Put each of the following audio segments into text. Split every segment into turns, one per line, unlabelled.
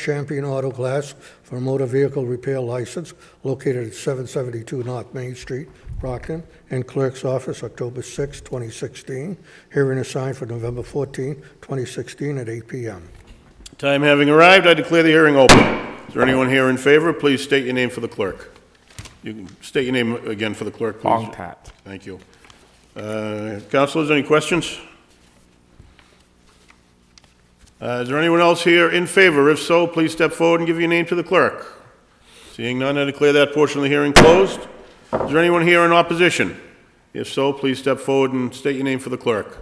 Champion Auto Glass for motor vehicle repair license located at 772 North Main Street, Brockton, and Clerk's Office, October 6, 2016. Hearing assigned for November 14, 2016 at 8 p.m.
Time having arrived, I declare the hearing open. Is there anyone here in favor? Please state your name for the clerk. You can state your name again for the clerk, please.
Longtat.
Thank you. Uh, Councilors, any questions? Uh, Is there anyone else here in favor? If so, please step forward and give your name to the clerk. Seeing none, I declare that portion of the hearing closed. Is there anyone here in opposition? If so, please step forward and state your name for the clerk.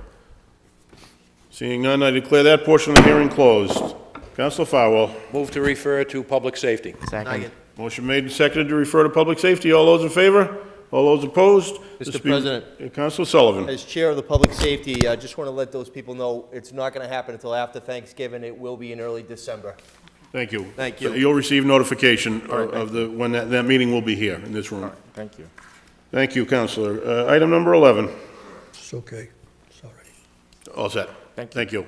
Seeing none, I declare that portion of the hearing closed. Counsel Farwell,
Move to refer to public safety.
Second.
motion made and seconded to refer to public safety. All those in favor? All those opposed?
Mr.
This be-
President.
Counsel Sullivan.
As Chair of the Public Safety, I just want to let those people know, it's not going to happen until after Thanksgiving. It will be in early December.
Thank you.
Thank you.
You'll receive notification of of the, when that, that meeting will be here in this room.
Thank you.
Thank you, Counselor. Uh, Item number 11.
It's okay, sorry.
All set.
Thank you.
Thank you.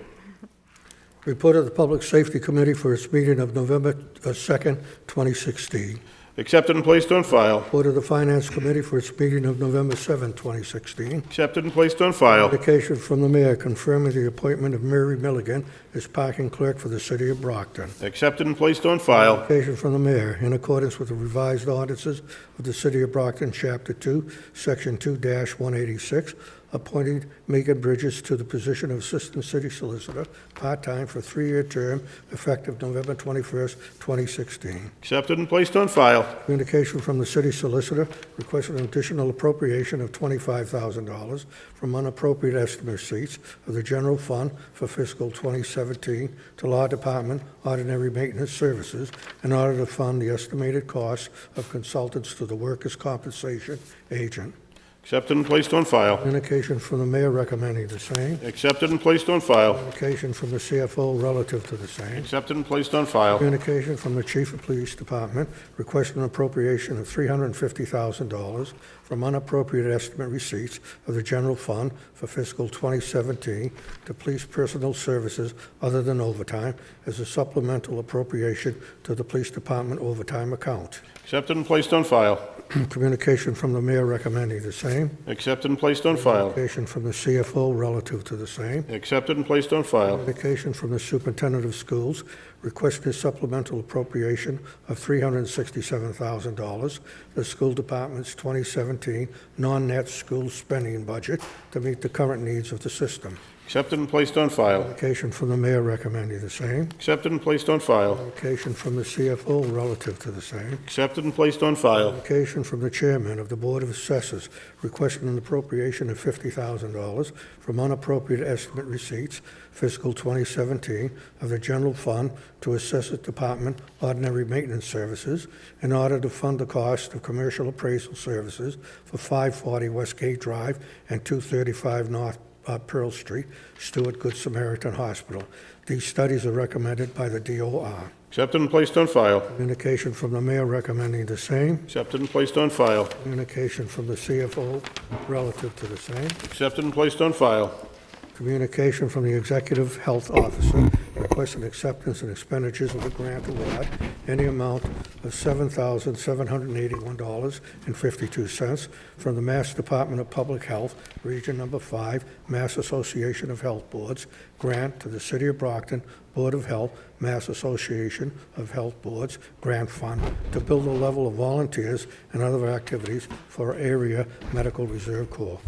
Report of the Public Safety Committee for its meeting of November uh, 2, 2016.
Accepted and placed on file.
Report of the Finance Committee for its meeting of November 7, 2016.
Accepted and placed on file.
Application from the mayor confirming the appointment of Mary Milligan as parking clerk for the city of Brockton.
Accepted and placed on file.
Application from the mayor, in accordance with the revised ordinances of the City of Brockton, Chapter 2, Section 2-186, appointing Megan Bridges to the position of Assistant City Solicitor, part-time for three-year term, effective November 21st, 2016.
Accepted and placed on file.
Communication from the city solicitor requested an additional appropriation of $25,000 from unappropriate estimate receipts of the general fund for fiscal 2017 to law department ordinary maintenance services in order to fund the estimated costs of consultants to the workers' compensation agent.
Accepted and placed on file.
Communication from the mayor recommending the same.
Accepted and placed on file.
Communication from the CFO relative to the same.
Accepted and placed on file.
Communication from the Chief of Police Department requesting appropriation of $350,000 from unappropriated estimate receipts of the general fund for fiscal 2017 to police personnel services other than overtime as a supplemental appropriation to the Police Department overtime account.
Accepted and placed on file.
Communication from the mayor recommending the same.
Accepted and placed on file.
Communication from the CFO relative to the same.
Accepted and placed on file.
Communication from the superintendent of schools requesting supplemental appropriation of $367,000 to the school department's 2017 non-net school spending budget to meet the current needs of the system.
Accepted and placed on file.
Communication from the mayor recommending the same.
Accepted and placed on file.
Communication from the CFO relative to the same.
Accepted and placed on file.
Communication from the chairman of the Board of Assessors requesting an appropriation of $50,000 from unappropriate estimate receipts fiscal 2017 of the general fund to Assessor Department Ordinary Maintenance Services in order to fund the cost of commercial appraisal services for 540 Westgate Drive and 235 North uh, Pearl Street, Stewart Good Samaritan Hospital. These studies are recommended by the DOR.
Accepted and placed on file.
Communication from the mayor recommending the same.
Accepted and placed on file.
Communication from the CFO relative to the same.
Accepted and placed on file.
Communication from the Executive Health Officer requesting acceptance and expenditures of the grant award in the amount of $7,781.52 from the Mass Department of Public Health, Region Number 5, Mass Association of Health Boards, grant to the City of Brockton Board of Health, Mass Association of Health Boards Grant Fund to build a level of volunteers and other activities for area medical reserve corps.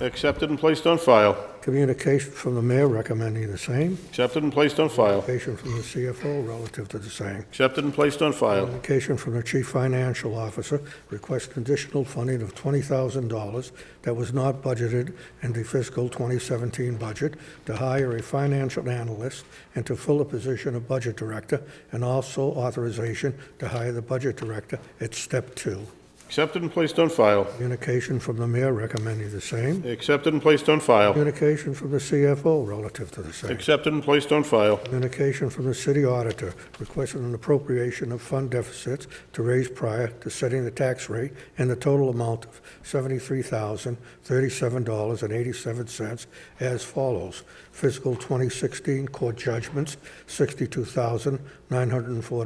Accepted and placed on file.
Communication from the mayor recommending the same.
Accepted and placed on file.
Communication from the CFO relative to the same.
Accepted and placed on file.
Communication from the chief financial officer requesting additional funding of $20,000 that was not budgeted in the fiscal 2017 budget to hire a financial analyst and to fill the position of budget director, and also authorization to hire the budget director at step two.
Accepted and placed on file.
Communication from the mayor recommending the same.
Accepted and placed on file.
Communication from the CFO relative to the same.
Accepted and placed on file.
Communication from the city auditor requesting an appropriation of fund deficits to raise prior to setting the tax rate and the total amount of $73,037.87 as follows. Fiscal 2016 court judgments, $62,904.